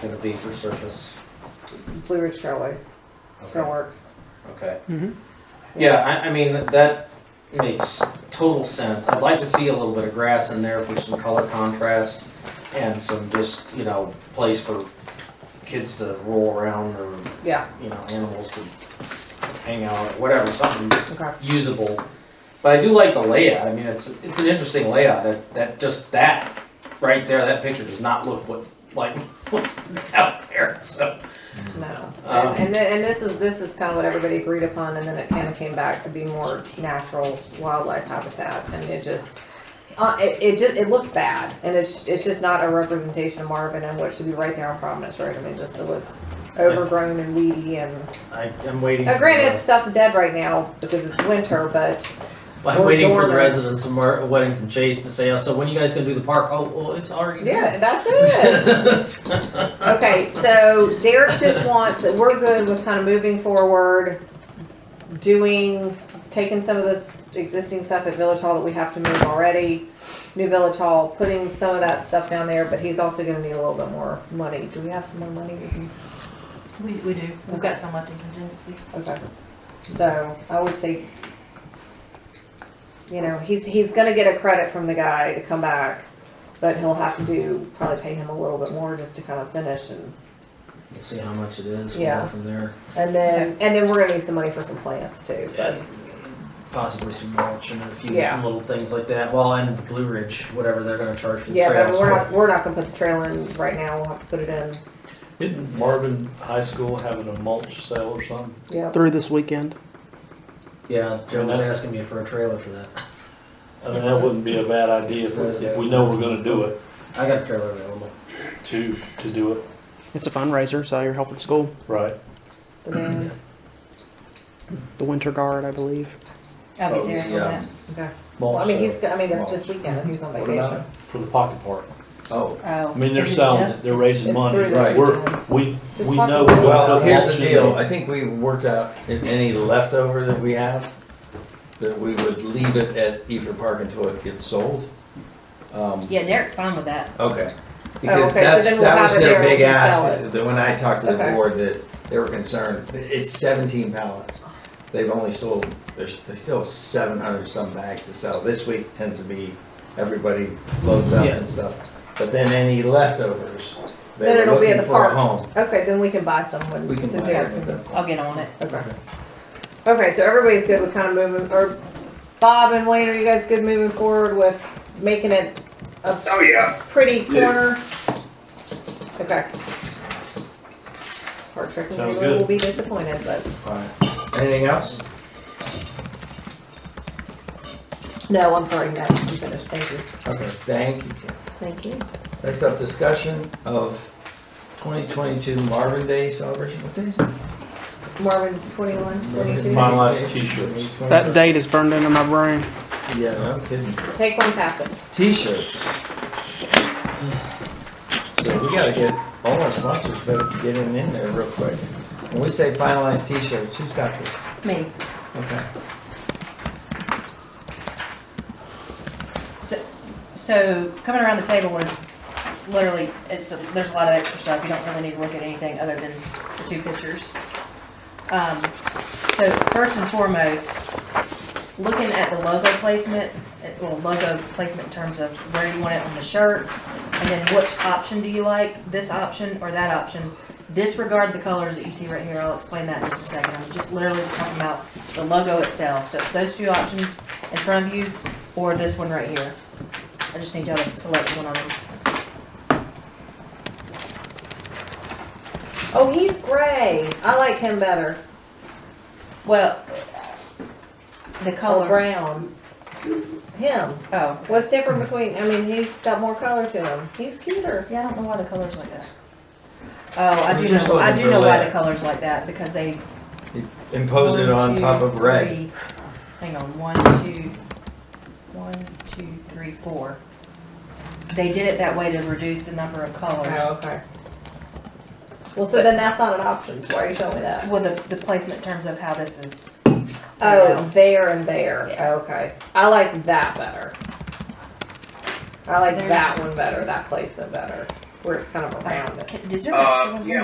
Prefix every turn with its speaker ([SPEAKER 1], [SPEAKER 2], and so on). [SPEAKER 1] to the vapor surface?
[SPEAKER 2] Blue Ridge Trailways,
[SPEAKER 1] Okay.
[SPEAKER 2] Trailworks.
[SPEAKER 1] Okay.
[SPEAKER 3] Mhm.
[SPEAKER 1] Yeah, I, I mean, that makes total sense. I'd like to see a little bit of grass in there for some color contrast and some just, you know, place for kids to roll around or,
[SPEAKER 2] Yeah,
[SPEAKER 1] you know, animals to hang out, whatever, something
[SPEAKER 2] okay.
[SPEAKER 1] usable. But I do like the layout. I mean, it's it's an interesting layout. That that just that right there, that picture does not look what like what's out there. So
[SPEAKER 2] No.
[SPEAKER 1] Um,
[SPEAKER 2] And, and then, and this is, this is kind of what everybody agreed upon, and then it kind of came back to be more natural wildlife habitat, and it just, uh, it, it just, it looks bad, and it's, it's just not a representation of Marvin and what should be right there on Providence Road, I mean, just it looks overgrown and weedy and,
[SPEAKER 1] I, I'm waiting.
[SPEAKER 2] now
[SPEAKER 1] for
[SPEAKER 2] Uh, granted,
[SPEAKER 1] the-
[SPEAKER 2] stuff's dead right now because it's winter, but
[SPEAKER 4] I'm
[SPEAKER 2] Or
[SPEAKER 4] waiting for the
[SPEAKER 2] dormers.
[SPEAKER 4] residents of Mar- Weddington Chase to say, oh, so when you guys gonna do the park? Oh, well, it's already.
[SPEAKER 2] yeah, that's it. Okay, so Derek just wants that we're good with kind of moving forward, doing, taking some of this existing stuff at Village Hall that we have to move already, new Village Hall, putting some of that stuff down there, but he's also gonna need a little bit more money. Do we have some more money? we can-
[SPEAKER 5] We, we do, we've got some left in contingency.
[SPEAKER 2] Okay, so I would say, you know, he's, he's gonna get a credit from the guy to come back, but he'll have to do, probably pay him a little bit more just to kind of finish and
[SPEAKER 4] Let's see how much it is.
[SPEAKER 2] We'll go Yeah.
[SPEAKER 4] From there,
[SPEAKER 2] And then, and then we're gonna need some money for some plants too.
[SPEAKER 4] yeah, possibly some mulch and a few
[SPEAKER 2] Yeah.
[SPEAKER 4] little things like that. Well, and the Blue Ridge, whatever they're gonna charge for the
[SPEAKER 2] Yeah, but
[SPEAKER 4] trails.
[SPEAKER 2] we're not, we're not gonna put the trail in right now, we'll have to put it in,
[SPEAKER 6] Didn't Marvin High School having a mulch sale or something?
[SPEAKER 2] yeah.
[SPEAKER 3] Through this weekend.
[SPEAKER 4] Yeah, Joe was
[SPEAKER 6] Yeah.
[SPEAKER 4] asking me for a trailer for that.
[SPEAKER 6] I mean, that wouldn't be a bad idea if, if we know we're gonna do it,
[SPEAKER 4] I got a trailer available.
[SPEAKER 6] to, to do it,
[SPEAKER 3] It's a fundraiser, so you're helping school.
[SPEAKER 6] right?
[SPEAKER 2] But then-
[SPEAKER 3] The Winter Guard, I believe.
[SPEAKER 5] I'll
[SPEAKER 6] Oh,
[SPEAKER 5] be there for
[SPEAKER 7] yeah.
[SPEAKER 5] that.
[SPEAKER 2] Okay, well, I
[SPEAKER 6] Mulch
[SPEAKER 2] mean, he's,
[SPEAKER 6] sale
[SPEAKER 2] go- I mean, it's this weekend, he's on
[SPEAKER 7] What about
[SPEAKER 2] vacation.
[SPEAKER 6] for the pocket park.
[SPEAKER 7] Oh,
[SPEAKER 5] Oh.
[SPEAKER 6] I mean, they're
[SPEAKER 5] is it
[SPEAKER 6] selling, it,
[SPEAKER 5] just-
[SPEAKER 6] they're raising
[SPEAKER 2] It's
[SPEAKER 6] money.
[SPEAKER 2] through
[SPEAKER 7] this
[SPEAKER 6] We're,
[SPEAKER 2] weekend.
[SPEAKER 6] we,
[SPEAKER 2] Just
[SPEAKER 6] we
[SPEAKER 2] talk
[SPEAKER 6] know
[SPEAKER 2] to
[SPEAKER 6] we're
[SPEAKER 2] them.
[SPEAKER 6] gonna
[SPEAKER 7] well,
[SPEAKER 6] put
[SPEAKER 7] here's
[SPEAKER 6] mulch
[SPEAKER 7] the
[SPEAKER 6] in
[SPEAKER 7] deal,
[SPEAKER 6] there.
[SPEAKER 7] I think we worked out, if any leftover that we have, that we would leave it at Ether Park until it gets sold. Um,
[SPEAKER 5] Yeah, Derek's fine with that.
[SPEAKER 7] Okay. Because
[SPEAKER 2] Oh, okay, so
[SPEAKER 7] that's,
[SPEAKER 2] then we'll
[SPEAKER 7] that
[SPEAKER 2] have
[SPEAKER 7] was
[SPEAKER 2] it
[SPEAKER 7] their
[SPEAKER 2] there, we
[SPEAKER 7] big
[SPEAKER 2] can
[SPEAKER 7] ask,
[SPEAKER 2] sell
[SPEAKER 7] that when I talked to the
[SPEAKER 2] Okay.
[SPEAKER 7] board, that they were concerned, it's seventeen pallets. They've only sold, there's, they still have seven hundred some bags to sell. This week tends to be, everybody loads up
[SPEAKER 4] Yeah.
[SPEAKER 7] and stuff. But then any leftovers,
[SPEAKER 2] Then
[SPEAKER 7] they were
[SPEAKER 2] it'll be at
[SPEAKER 7] looking
[SPEAKER 2] the
[SPEAKER 7] for a
[SPEAKER 2] park.
[SPEAKER 7] home.
[SPEAKER 5] Oh.
[SPEAKER 2] Okay, then we can buy some when,
[SPEAKER 7] We can
[SPEAKER 2] so
[SPEAKER 7] buy
[SPEAKER 2] Derek
[SPEAKER 7] some of
[SPEAKER 2] can,
[SPEAKER 7] them.
[SPEAKER 5] I'll get on it.
[SPEAKER 2] okay. Okay, so everybody's good with kind of moving, or Bob and Wayne, are you guys good moving forward with making it a
[SPEAKER 8] Oh, yeah.
[SPEAKER 2] pretty corner? Okay. Park Trek
[SPEAKER 6] Sounds
[SPEAKER 2] people will
[SPEAKER 6] good.
[SPEAKER 2] be disappointed, but.
[SPEAKER 7] Alright. Anything else?
[SPEAKER 2] No, I'm sorry, no, I'm finished, thank you.
[SPEAKER 7] Okay, thank you. Tim.
[SPEAKER 2] Thank you.
[SPEAKER 7] Next up, discussion of 2022 Marvin Day celebration. What day is it?
[SPEAKER 2] Marvin, 21, 22.
[SPEAKER 6] My last t-shirts.
[SPEAKER 7] Oh,
[SPEAKER 3] That date is burned into my brain.
[SPEAKER 7] Yeah, no kidding.
[SPEAKER 2] Take one, pass it.
[SPEAKER 7] T-shirts. So we gotta get, all our sponsors better get in in there real quick. When we say finalized T-shirts, who's got this?
[SPEAKER 5] Me.
[SPEAKER 7] Okay.
[SPEAKER 5] So, so coming around the table was literally, it's, a- there's a lot of extra stuff. You don't really need to look at anything other than the two pictures. Um, so first and foremost, looking at the logo placement, eh, well, logo placement in terms of where you want it on the shirt, and then which option do you like, this option or that option? Disregard the colors that you see right here. I'll explain that in just a second. I'm just literally talking about the logo itself. So it's those two options in front of you or this one right here. I just need y'all to select one of them.
[SPEAKER 2] Oh, he's gray. I like him better.
[SPEAKER 5] Well, the
[SPEAKER 2] Color
[SPEAKER 5] color.
[SPEAKER 2] Oh, brown. Him.
[SPEAKER 5] Oh,
[SPEAKER 2] What's different between, I mean, he's got more color to him. He's cuter.
[SPEAKER 5] yeah, I don't know why the color's like that. Oh, I
[SPEAKER 7] You're
[SPEAKER 5] do
[SPEAKER 7] just
[SPEAKER 5] know, I
[SPEAKER 7] looking
[SPEAKER 5] do
[SPEAKER 7] for
[SPEAKER 5] know why
[SPEAKER 7] that.
[SPEAKER 5] the color's like that, because they.
[SPEAKER 7] Imposed it
[SPEAKER 5] one,
[SPEAKER 7] on
[SPEAKER 5] two,
[SPEAKER 7] top of red.
[SPEAKER 5] three- Hang on, one, two, one, two, three, four. They did it that way to reduce the number of colors.
[SPEAKER 2] okay. Well, so then that's not an option, so why are you showing me that?
[SPEAKER 5] Well, the, the placement in terms of how this is.
[SPEAKER 2] Oh, there and there,
[SPEAKER 5] Yeah.
[SPEAKER 2] okay. I like that better. I like
[SPEAKER 5] There's-
[SPEAKER 2] that one better, that placement better.
[SPEAKER 9] where it's kind of around it.
[SPEAKER 2] Can- Is there an
[SPEAKER 5] Uh,
[SPEAKER 2] extra one?
[SPEAKER 5] yeah,